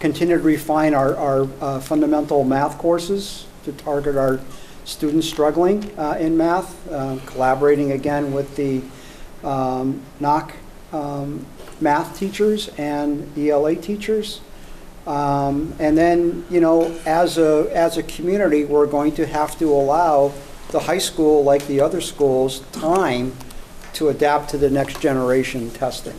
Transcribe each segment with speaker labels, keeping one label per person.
Speaker 1: continue to refine our, our uh, fundamental math courses to target our students struggling uh, in math, uh, collaborating again with the um, NOC um, math teachers and ELA teachers. Um, And then, you know, as a, as a community, we're going to have to allow the high school, like the other schools, time to adapt to the next generation testing.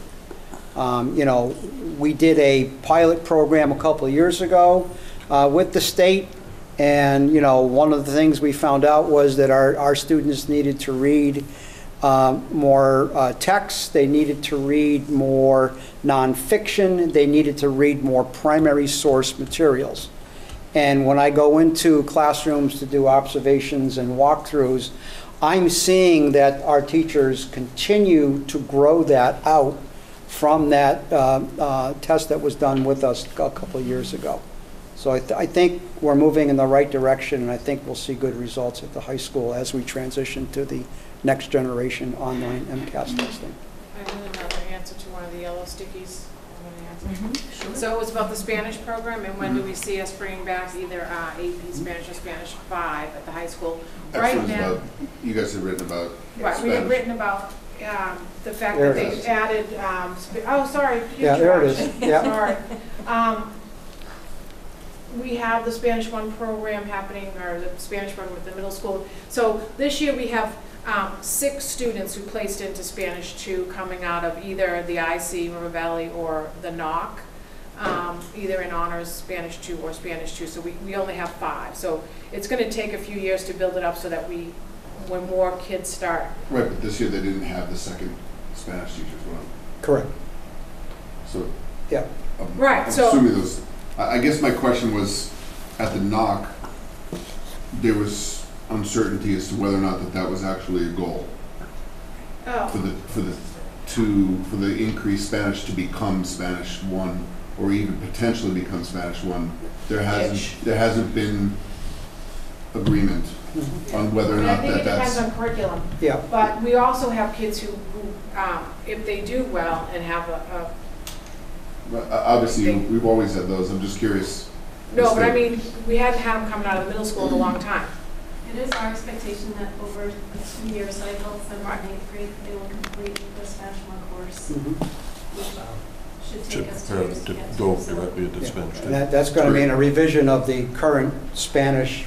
Speaker 1: Um, You know, we did a pilot program a couple of years ago uh, with the state, and, you know, one of the things we found out was that our, our students needed to read um, more uh, texts, they needed to read more nonfiction, they needed to read more primary source materials. And when I go into classrooms to do observations and walkthroughs, I'm seeing that our teachers continue to grow that out from that uh, uh, test that was done with us a couple of years ago. So I, th- I think we're moving in the right direction, and I think we'll see good results at the high school as we transition to the next generation online MCAS testing.
Speaker 2: I have another answer to one of the yellow stickies. I'm gonna answer. So it was about the Spanish program, and
Speaker 3: Mm-hmm.
Speaker 2: when do we see us bringing back either uh, AP Spanish or Spanish five at the high school?
Speaker 3: Actually,
Speaker 2: Right
Speaker 3: Mm-hmm. it's
Speaker 2: now,
Speaker 3: about- You guys have written about
Speaker 2: right, we had
Speaker 3: Spanish.
Speaker 2: written about um, the fact
Speaker 1: There
Speaker 2: that
Speaker 1: it
Speaker 2: they
Speaker 3: is.
Speaker 2: added, um, sp- oh, sorry.
Speaker 1: Yeah, there it is.
Speaker 2: future
Speaker 1: Yeah.
Speaker 2: action. Sorry. Um, We have the Spanish one program happening, or the Spanish one with the middle school. So this year, we have um, six students who placed into Spanish two coming out of either the IC River Valley or the NOC, um, either in honors Spanish two or Spanish two. So we, we only have five. So it's going to take a few years to build it up so that we, when more kids start
Speaker 3: Right, but this year they didn't have the second Spanish teacher as well,
Speaker 1: Correct.
Speaker 3: so.
Speaker 1: Yeah.
Speaker 3: I'm-
Speaker 2: Right,
Speaker 3: I'm
Speaker 2: so-
Speaker 3: Assuming those, I, I guess my question was, at the knock, there was uncertainty as to whether or not that that was actually a goal for
Speaker 2: Oh,
Speaker 3: the, for the, to, for the increased Spanish to become Spanish one, or even potentially become Spanish one. There
Speaker 2: Itch.
Speaker 3: hasn't, there hasn't been agreement on whether or
Speaker 2: and I
Speaker 3: not
Speaker 2: think it
Speaker 3: that
Speaker 2: depends
Speaker 3: that's.
Speaker 2: on curriculum,
Speaker 1: Yeah.
Speaker 2: but we also have kids who, who, um, if they do well and have a,
Speaker 3: Well, o- uh, Obviously, you- we've always had those, I'm just curious.
Speaker 2: a, no,
Speaker 3: as
Speaker 2: but I
Speaker 3: to-
Speaker 2: mean, we hadn't had them coming out of the middle school in a long time.
Speaker 4: It is our expectation that over a two-year cycle, seventh and eighth grade, they will complete the Spanish one course,
Speaker 1: Mhm.
Speaker 4: which should
Speaker 5: to
Speaker 4: take us two
Speaker 5: prepare
Speaker 4: years to
Speaker 5: to
Speaker 4: get to.
Speaker 5: go
Speaker 4: So
Speaker 5: directly into
Speaker 1: Yeah.
Speaker 5: Spanish.
Speaker 1: And that, that's going to mean a revision of the current Spanish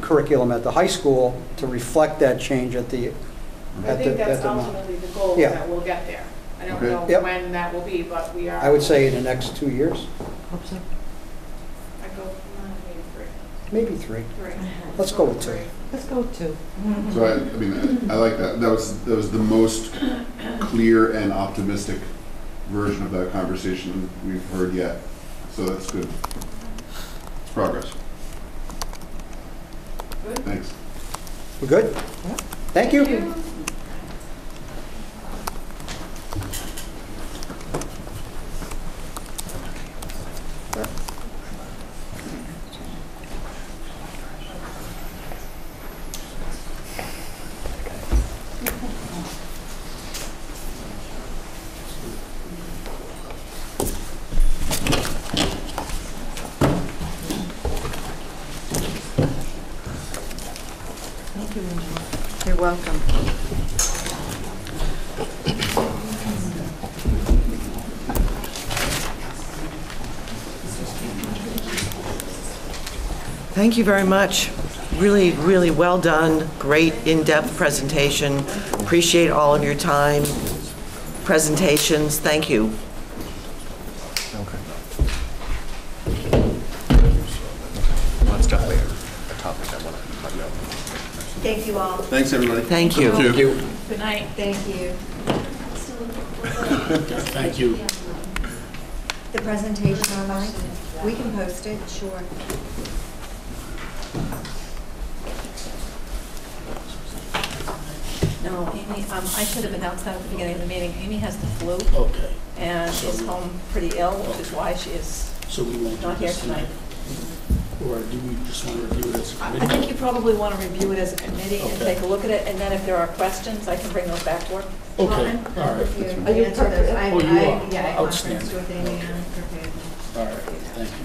Speaker 1: curriculum at the high school to reflect that change at the,
Speaker 2: I
Speaker 1: at
Speaker 2: think
Speaker 1: the, at
Speaker 2: that's
Speaker 1: the amount.
Speaker 2: ultimately the goal,
Speaker 1: Yeah.
Speaker 2: that we'll get there. I don't
Speaker 3: Okay.
Speaker 2: know
Speaker 1: Yep.
Speaker 2: when that will be, but we are.
Speaker 1: I would say in the next two years,
Speaker 2: I go, uh, maybe
Speaker 1: maybe three.
Speaker 2: three, three.
Speaker 1: Let's go with two.
Speaker 2: Three.
Speaker 6: Let's go to.
Speaker 3: So I, I mean, I I like that, that was, that was the most clear and optimistic version of that conversation we've heard yet, so that's good. It's progress.
Speaker 2: Good.
Speaker 3: Thanks.
Speaker 1: We're good? Thank you.
Speaker 6: You're welcome.
Speaker 7: Thank you very much. Really, really well done. Great in-depth presentation. Appreciate all of your time, presentations. Thank you.
Speaker 4: Thank you all.
Speaker 3: Thanks, everybody.
Speaker 7: Thank you.
Speaker 4: Good night. Thank you.
Speaker 8: Thank you.
Speaker 9: The presentation online? We can post it, sure.
Speaker 4: No, Amy, um, I should have announced that at the beginning of the meeting. Amy has the flu
Speaker 8: Okay,
Speaker 4: and is home pretty ill, which is why she is
Speaker 8: so we won't do
Speaker 4: not here
Speaker 8: this
Speaker 4: tonight.
Speaker 8: tonight? Or do we just want to review it as a
Speaker 4: I I
Speaker 8: committee?
Speaker 4: think you probably want to review it as a committee and
Speaker 8: Okay.
Speaker 4: take a look at it, and then if there are questions, I can bring those back to her.
Speaker 9: I'm-
Speaker 8: Okay, all
Speaker 9: I'm
Speaker 8: right,
Speaker 9: prepared
Speaker 4: Are you
Speaker 9: to answer those.
Speaker 4: prepared?
Speaker 9: I-
Speaker 8: Oh, you
Speaker 9: I-
Speaker 8: are.
Speaker 9: Yeah, I conferenced
Speaker 8: Outstanding.
Speaker 9: with Amy, and I'm uh, prepared.
Speaker 8: all right, thank you.